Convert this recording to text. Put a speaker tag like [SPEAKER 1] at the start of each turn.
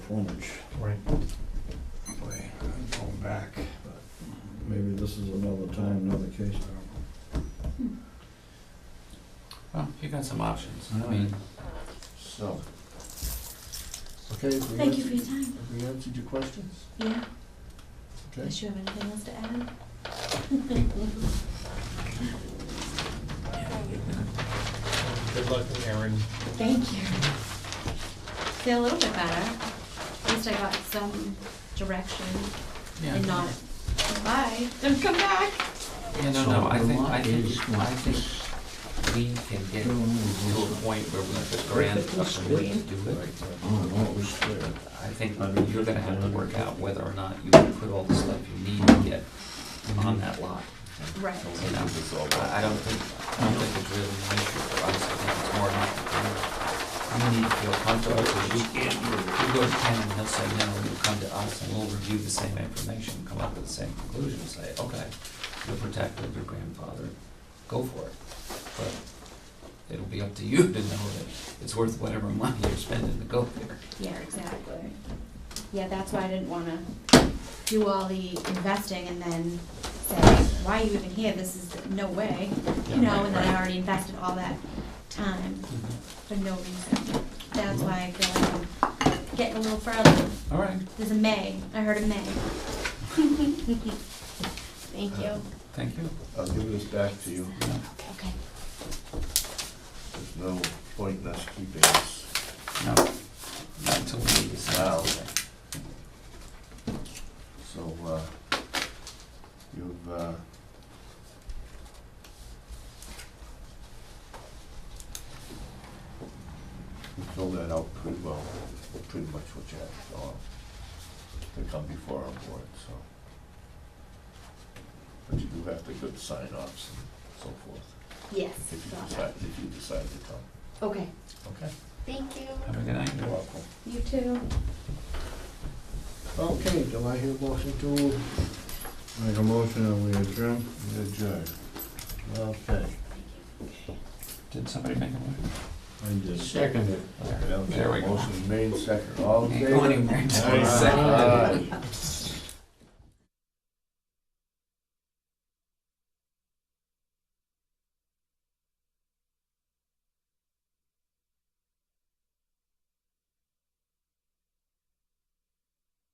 [SPEAKER 1] frontage.
[SPEAKER 2] Right.
[SPEAKER 1] Boy, I'm going back, but maybe this is another time, another case, I
[SPEAKER 3] Well, you got some options.
[SPEAKER 1] don't know.
[SPEAKER 3] I mean,
[SPEAKER 1] So. Okay, if we
[SPEAKER 4] Thank you for
[SPEAKER 1] answered,
[SPEAKER 4] your time.
[SPEAKER 1] if we answered your questions,
[SPEAKER 4] Yeah,
[SPEAKER 1] okay?
[SPEAKER 4] unless you have anything else to add?
[SPEAKER 2] Good luck, Aaron.
[SPEAKER 4] Thank you. Feel a little bit better. At least I got some direction
[SPEAKER 3] yeah.
[SPEAKER 4] and not, bye, don't come back.
[SPEAKER 3] Yeah, no, no, I think, I think, I think we can get to a point where we just grant a plan to do it.
[SPEAKER 1] Oh, no, it was clear.
[SPEAKER 3] I think you're gonna have to work out whether or not you can put all the stuff you need to get on that lot.
[SPEAKER 4] Right,
[SPEAKER 3] You know, I I don't think, I don't think it's really an issue for us, I think it's more about, you know, you need to feel comfortable, because you can't, you go to Ken and he'll say, no, you come to us, and we'll review the same information, come up with the same conclusion, and say, okay, you're protected, your grandfather, go for it. But it'll be up to you to know that it's worth whatever money you're spending to go there.
[SPEAKER 4] yeah, exactly. Yeah, that's why I didn't wanna do all the investing and then say, why are you even here? This is no way,
[SPEAKER 3] Yeah,
[SPEAKER 4] you know,
[SPEAKER 3] right,
[SPEAKER 4] and then I
[SPEAKER 3] right.
[SPEAKER 4] already invested all that time
[SPEAKER 3] Mm-hmm.
[SPEAKER 4] for no reason. That's why I feel like I'm getting a little further.
[SPEAKER 3] All right,
[SPEAKER 4] There's a May. I heard a May. Thank you.
[SPEAKER 3] thank you.
[SPEAKER 5] I'll give this back to you.
[SPEAKER 4] Okay.
[SPEAKER 5] There's no point in us keeping this.
[SPEAKER 3] No, not until we need this.
[SPEAKER 5] Wow. So, uh, you've, uh, you filled that out pretty well, pretty much what you had to fill out to come before our board, so. But you do have to get sign offs and so forth,
[SPEAKER 4] Yes.
[SPEAKER 5] if you
[SPEAKER 4] got it.
[SPEAKER 5] decide, if you decide to come.
[SPEAKER 4] Okay.
[SPEAKER 5] Okay.
[SPEAKER 4] Thank you.
[SPEAKER 3] Have a good night.
[SPEAKER 5] You're welcome.
[SPEAKER 4] You too.
[SPEAKER 1] Okay, do I hear a motion to? Make a motion and we adjourn?
[SPEAKER 5] Adjourn. Okay.
[SPEAKER 3] Did somebody make a move?
[SPEAKER 1] I did.
[SPEAKER 5] Second it.
[SPEAKER 3] There we go.
[SPEAKER 5] Motion made second, all in
[SPEAKER 3] Can't go
[SPEAKER 5] favor?
[SPEAKER 3] anywhere until
[SPEAKER 5] Aye.
[SPEAKER 3] it's seconded.
[SPEAKER 5] Aye.